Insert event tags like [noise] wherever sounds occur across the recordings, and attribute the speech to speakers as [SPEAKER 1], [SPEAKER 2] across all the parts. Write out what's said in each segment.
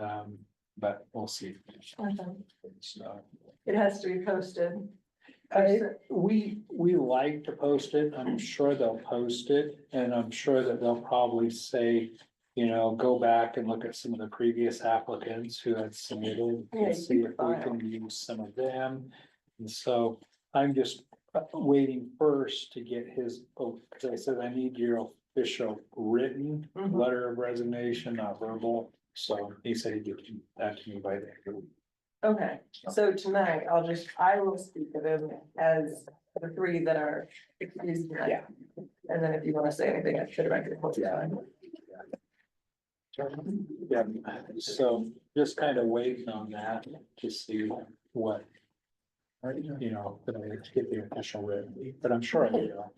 [SPEAKER 1] Um, but we'll see. So.
[SPEAKER 2] It has to be posted.
[SPEAKER 1] I, we, we like to post it, I'm sure they'll post it, and I'm sure that they'll probably say. You know, go back and look at some of the previous applicants who had submitted,
[SPEAKER 2] Yeah,
[SPEAKER 1] and see if we
[SPEAKER 2] file.
[SPEAKER 1] can use some of them. And so I'm just uh, waiting first to get his, oh, cause I said I need your official written
[SPEAKER 2] Mhm.
[SPEAKER 1] letter of resignation, not verbal. So he said he'd give that to me by the end of the week.
[SPEAKER 2] Okay, so tonight I'll just, I will speak of them as the three that are excused tonight.
[SPEAKER 1] Yeah.
[SPEAKER 2] And then if you want to say anything, I should have acted.
[SPEAKER 1] Yeah. Yeah, so just kind of waiting on that to see what. You know, that I get the official written, but I'm sure I will.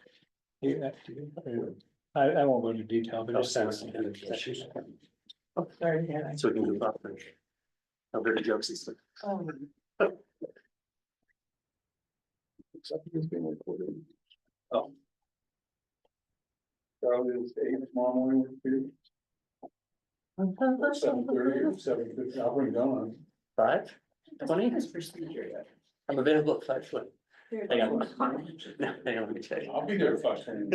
[SPEAKER 1] Yeah, I, I won't go into detail, but I'll send some.
[SPEAKER 2] Oh, sorry, Hannah.
[SPEAKER 3] So we can do about that. I've heard jokes. He's like,
[SPEAKER 2] Um,
[SPEAKER 3] "Except it's being recorded."
[SPEAKER 4] Probably it's eight tomorrow morning, seven thirty or seven fifty, I'll bring Dawn.
[SPEAKER 3] Five? Twenty? I'm available at five twenty. Hang on. Hang on, let me check.
[SPEAKER 4] I'll be there at five ten.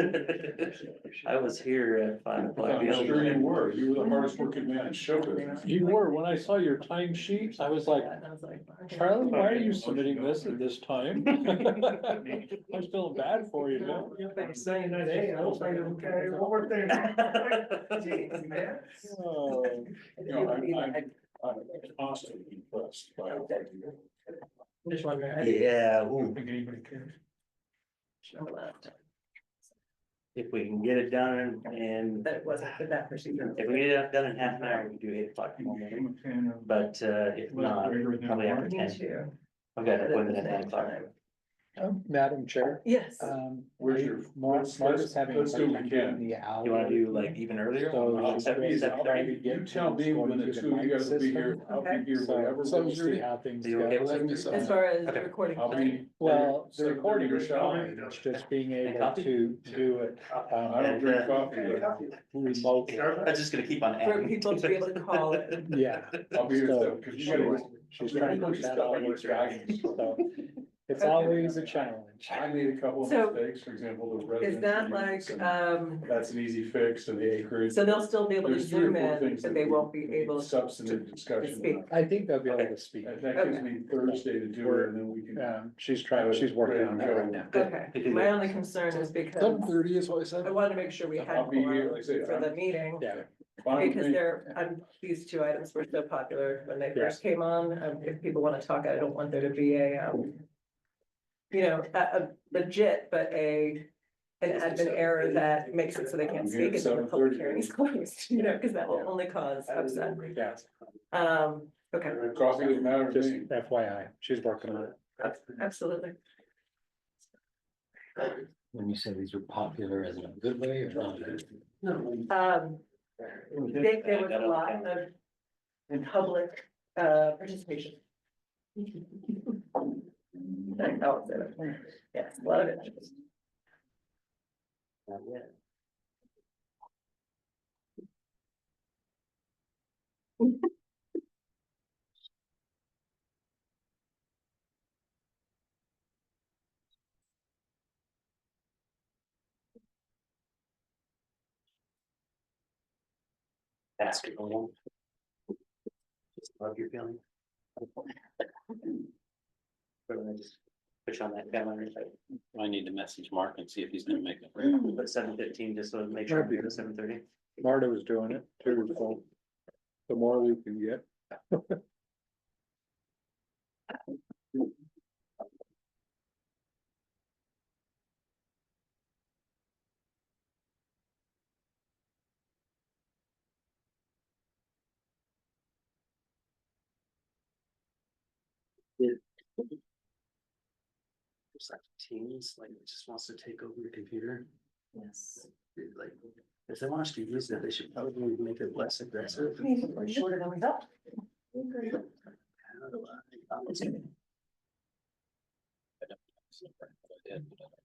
[SPEAKER 3] I was here at five o'clock.
[SPEAKER 4] I'm sure you were, you were the hardest working man in show business.
[SPEAKER 1] You were, when I saw your time sheets, I was like,
[SPEAKER 2] I was like, okay.
[SPEAKER 1] Charlie, why are you submitting this at this time? [laughs] I'm feeling bad for you, no?
[SPEAKER 4] saying that, hey, I was like, okay, one
[SPEAKER 2] [laughs]
[SPEAKER 4] more thing.
[SPEAKER 3] Jeez, man.
[SPEAKER 1] Oh,
[SPEAKER 4] No, I'm, I'm, I'm constantly impressed by. what you do.
[SPEAKER 2] Just wondering, I didn't
[SPEAKER 3] [laughs] Yeah, ooh,
[SPEAKER 1] think anybody cares.
[SPEAKER 2] know that.
[SPEAKER 3] if we can get it done and
[SPEAKER 2] That wasn't the that procedure.
[SPEAKER 3] if we get it done in half an hour, we can do eight o'clock in the morning. But uh, if not, probably after
[SPEAKER 2] Me
[SPEAKER 3] ten.
[SPEAKER 2] too.
[SPEAKER 3] I've got an appointment at nine o'clock.
[SPEAKER 1] Um, Madam Chair,
[SPEAKER 2] Yes,
[SPEAKER 1] um.
[SPEAKER 4] Where's your- let's- let's- let's do what we can.
[SPEAKER 3] You wanna do like even earlier?
[SPEAKER 1] So-
[SPEAKER 4] I'll
[SPEAKER 3] Like seven,
[SPEAKER 4] be-
[SPEAKER 3] seven
[SPEAKER 4] I'll
[SPEAKER 3] thirty?
[SPEAKER 4] be- You tell me when the two of you guys will be here, I'll be here whatever.
[SPEAKER 1] So we'll
[SPEAKER 4] works.
[SPEAKER 1] see how things
[SPEAKER 3] Are you okay with
[SPEAKER 1] go.
[SPEAKER 3] that?
[SPEAKER 2] as far as
[SPEAKER 3] Okay.
[SPEAKER 2] recording.
[SPEAKER 4] I'll be.
[SPEAKER 1] Well, the
[SPEAKER 4] seven thirty
[SPEAKER 1] recording
[SPEAKER 4] or
[SPEAKER 1] is
[SPEAKER 4] something.
[SPEAKER 1] fine, it's just being able
[SPEAKER 3] coffee?
[SPEAKER 1] to do it
[SPEAKER 4] I
[SPEAKER 1] um,
[SPEAKER 4] don't
[SPEAKER 3] uh,
[SPEAKER 4] drink coffee,
[SPEAKER 1] remotely.
[SPEAKER 3] I'm just gonna keep on
[SPEAKER 2] For
[SPEAKER 3] adding.
[SPEAKER 2] people to be able to call
[SPEAKER 3] [laughs]
[SPEAKER 2] it.
[SPEAKER 1] Yeah,
[SPEAKER 4] but I'll be here,
[SPEAKER 1] So,
[SPEAKER 4] because you
[SPEAKER 1] she was-
[SPEAKER 4] gotta.
[SPEAKER 1] she's trying to get that all worked out, so it's always a challenge.
[SPEAKER 4] I made a couple of
[SPEAKER 2] So-
[SPEAKER 4] mistakes, for example, the resident.
[SPEAKER 2] Is that
[SPEAKER 4] units,
[SPEAKER 2] like,
[SPEAKER 4] and
[SPEAKER 2] um,
[SPEAKER 4] That's an easy fix and the acreage.
[SPEAKER 2] so they'll still be able to
[SPEAKER 4] There's three or
[SPEAKER 2] zoom
[SPEAKER 4] four
[SPEAKER 2] in,
[SPEAKER 4] things
[SPEAKER 2] but
[SPEAKER 4] that
[SPEAKER 2] they
[SPEAKER 4] we-
[SPEAKER 2] won't be able to.
[SPEAKER 4] Substantive discussion.
[SPEAKER 2] speak.
[SPEAKER 1] I think they'll be able to speak.
[SPEAKER 4] And that gives me Thursday to do it and then we can.
[SPEAKER 1] Um, she's trying, she's working on that right now.
[SPEAKER 2] Okay, my only concern is because
[SPEAKER 1] thirty is what I
[SPEAKER 2] I wanted to make sure we had
[SPEAKER 4] I'll be here,
[SPEAKER 2] more
[SPEAKER 4] like I said.
[SPEAKER 2] for the
[SPEAKER 4] I'm
[SPEAKER 2] meeting.
[SPEAKER 1] Yeah,
[SPEAKER 4] fine with
[SPEAKER 2] Because
[SPEAKER 4] me.
[SPEAKER 2] they're, um, these two items were so popular when they first came on, um, if people wanna talk, I don't want there to be a, um. You know, a, a legit, but a, an admin error that makes it so they can't speak until the public hearing is [laughs] closed, you know, cause that will only cause upset.
[SPEAKER 1] yeah,
[SPEAKER 2] Um, okay,
[SPEAKER 4] Coffee doesn't matter to
[SPEAKER 1] just
[SPEAKER 4] me.
[SPEAKER 1] FYI, she's working on it.
[SPEAKER 2] absolutely.
[SPEAKER 5] When you say these were popular as in a good way or not?
[SPEAKER 2] Um, I think there was a lot of public, uh, participation. [laughs] Like, oh, so, Yes, a lot of interest.
[SPEAKER 3] Basketball. Just love your feeling. But then I just push on that calendar, like,
[SPEAKER 5] I need to message Mark and see if he's gonna make it.
[SPEAKER 3] put seven fifteen, just so to make sure I'm here at seven thirty.
[SPEAKER 1] Marta was doing it too, so the more we can get.
[SPEAKER 3] It's like Teams, like, it just wants to take over your computer. Yes. Like, if they want us to use that, they should probably make it less aggressive. Like,
[SPEAKER 2] Shorter than we thought.
[SPEAKER 3] how do I-